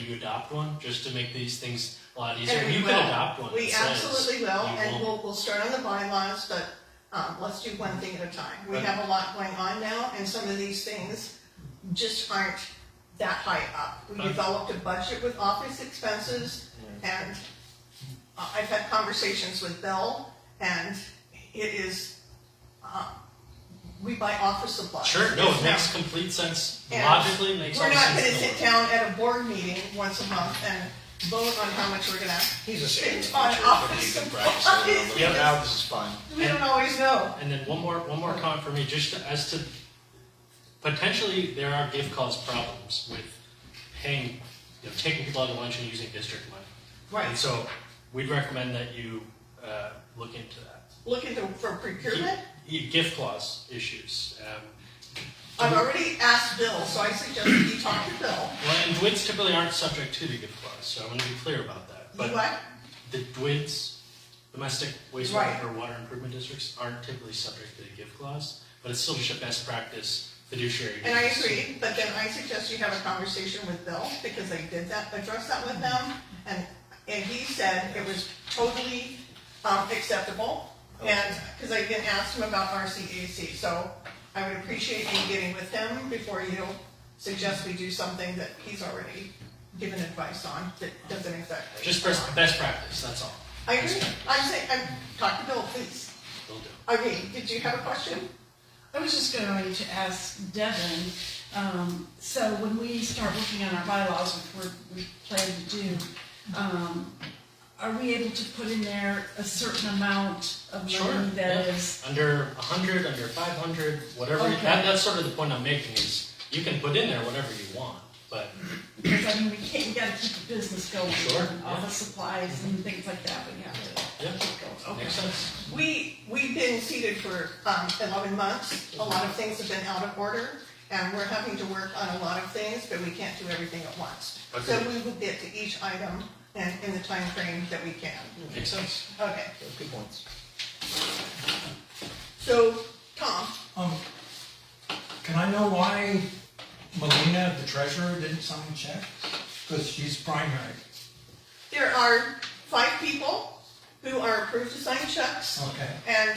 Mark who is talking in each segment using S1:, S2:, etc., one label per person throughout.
S1: you adopt one, just to make these things a lot easier?
S2: And we
S1: You can
S2: will.
S1: adopt one
S2: We
S1: that says
S2: absolutely will,
S1: you
S2: and
S1: won't-
S2: we'll, we'll start on the bylaws, but, um, let's do one thing at a time. We
S1: Right.
S2: have a lot going on now, and some of these things just aren't that high up. We
S1: Right.
S2: developed a budget with office expenses, and I- I've had conversations with Bill, and it is, uh, we buy office supplies.
S1: Sure, no,
S2: It's
S1: it
S2: not-
S1: makes complete sense,
S2: And
S1: logically makes all
S2: We're
S1: the
S2: not
S1: sense
S2: gonna
S1: in the
S2: sit
S1: world.
S2: down at a board meeting once a month and vote on how much we're gonna
S3: He's a
S2: It's
S3: senior.
S2: on
S3: teacher, but
S2: office
S3: he's been
S2: supplies.
S3: practicing. for a
S1: Yep.
S3: little Now this is fun.
S2: We don't always know.
S1: And then one more, one more comment for me, just as to, potentially, there are gift cause problems with paying, you know, taking people out to lunch and using district money. And so, we'd recommend that you, uh, look into that.
S2: Look into for procurement.
S1: Gi- Gift clause issues, um,
S2: I've already asked Bill, so I suggest you talk to Bill.
S1: Well, and DWIDs typically aren't subject to the gift clause, so I want to be clear about that.
S2: You
S1: But
S2: what?
S1: the DWIDs, domestic
S2: Right.
S1: wastewater or water improvement districts, aren't typically subject to the gift clause, but it's still just a best practice fiduciary.
S2: And I
S1: duties.
S2: agree, but then I suggest you have a conversation with Bill because I did that, address that with them, and and he said it was totally um, acceptable. And because I didn't ask him about RCAC, so I would appreciate you getting with him before you suggest we do something that he's already given advice on that doesn't exactly.
S1: Just best, best practice, that's all.
S2: I agree. I'm saying, I'm, talk to Bill, please.
S1: Will do.
S2: Okay, did you have a question?
S4: I was just going to ask Devin, um, so when we start working on our bylaws, which we're, we plan to do, um, are we able to put in there a certain amount of
S1: Sure,
S4: money that
S1: yeah.
S4: is?
S1: Under a hundred, under five hundred, whatever,
S4: Okay.
S1: that, that's sort of the point I'm making is, you can put in there whatever you want, but
S4: Because I mean, we can't, we gotta keep the business going,
S1: Sure,
S4: and all the supplies and things like that, we have to
S1: Yeah.
S4: keep going. Okay.
S1: makes sense.
S2: We, we've been seated for um, 11 months. A lot of things have been out of order, and we're having to work on a lot of things, but we can't do everything at once. So
S1: Agreed.
S2: we will get to each item in, in the time frame that we can.
S1: Makes sense.
S2: Okay,
S3: Those Good points.
S2: so, Tom,
S5: Um, can I know why Melina, the treasurer, didn't sign a check? Because she's primary.
S2: there are five people who are approved to sign checks,
S5: Okay.
S2: and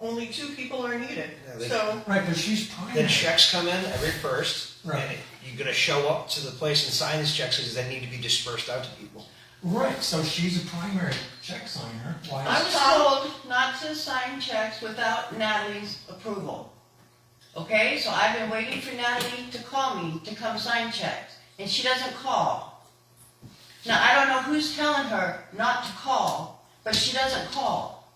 S2: only two people are needed.
S3: Yeah, they-
S2: So,
S5: Right, but she's
S3: The
S5: primary.
S3: checks come in every first, and
S5: Right.
S3: you're gonna show up to the place and sign these checks because they need to be dispersed out to people.
S5: Right, so she's a primary check signer.
S6: I
S5: Why is,
S6: was told not to sign checks without Natalie's approval. Okay, so I've been waiting for Natalie to call me to come sign checks, and she doesn't call. Now, I don't know who's telling her not to call, but she doesn't call.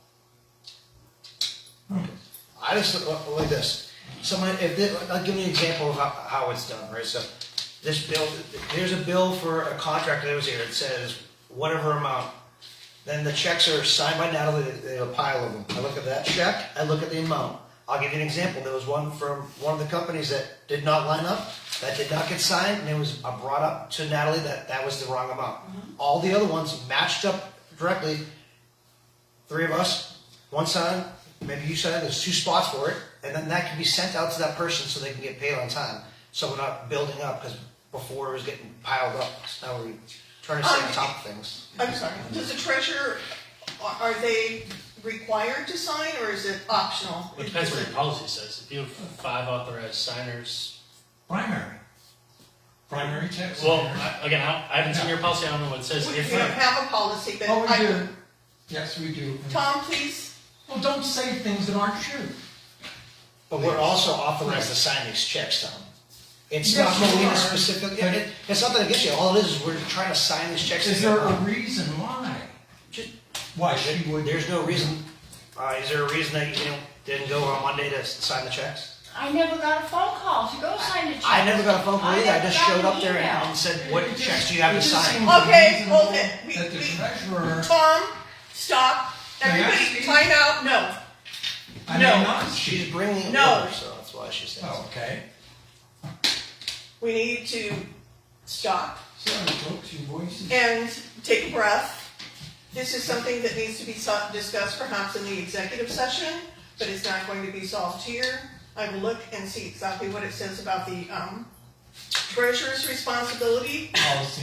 S3: I just look- look like this. Someone, if this, I'll give you an example of how, how it's done, right? So this bill, there's a bill for a contract that was here. It says whatever amount. Then the checks are signed by Natalie. They have a pile of them. I look at that check. I look at the amount. I'll give you an example. There was one from one of the companies that did not line up, that did not get signed, and it was I brought up to Natalie that that was the wrong amount. All the other ones matched up directly. Three of us, one signed, maybe you signed, there's two spots for it, and then that can be sent out to that person so they can get paid on time. So we're not building up, because before it was getting piled up, so now we're trying to stay on top of things.
S2: I'm sorry, does the treasurer, are- are they required to sign, or is it optional?
S1: It depends what your policy says. If you have five authorized signers,
S5: primary. Primary check signer.
S1: Well, I- again, I I haven't seen your policy, I don't know what it says.
S2: We we
S1: If-
S2: don't have a policy, but
S5: Oh,
S2: I-
S5: we do. Yes, we do.
S2: Tom, please,
S5: Well, don't say things that aren't true.
S3: But we're also authorized to sign these checks, Tom. It's
S5: Yes,
S3: not
S5: you
S3: Molina
S5: are.
S3: specific, yeah, it- it's nothing against you, all it is, is we're trying to sign these checks.
S5: Is there a reason why?
S3: Ju-
S5: Why she would?
S3: There's no reason, uh, is there a reason that you didn't go on Monday to s- sign the checks?
S6: I never got a phone call to go sign the check.
S3: I never got a phone call either. I just
S6: never
S3: showed
S6: got
S3: up
S6: an
S3: there
S6: email.
S3: and said, what
S5: It just-
S3: checks do you have
S5: it
S3: to
S5: just
S3: sign?
S5: seems
S2: Okay, hold
S5: reasonable
S2: it. We-
S5: That the
S2: we-
S5: treasurer.
S2: Tom, stop,
S5: May I
S2: everybody,
S5: speak?
S2: time out, no.
S5: I
S2: No.
S5: may not.
S3: She's bringing it
S2: No.
S3: over, so that's why she says.
S5: Oh, okay.
S2: We need to stop
S5: Sorry, folks, your voice is.
S2: and take a breath. This is something that needs to be so- discussed perhaps in the executive session, but it's not going to be solved here. I will look and see exactly what it says about the um, treasurer's responsibility
S5: policy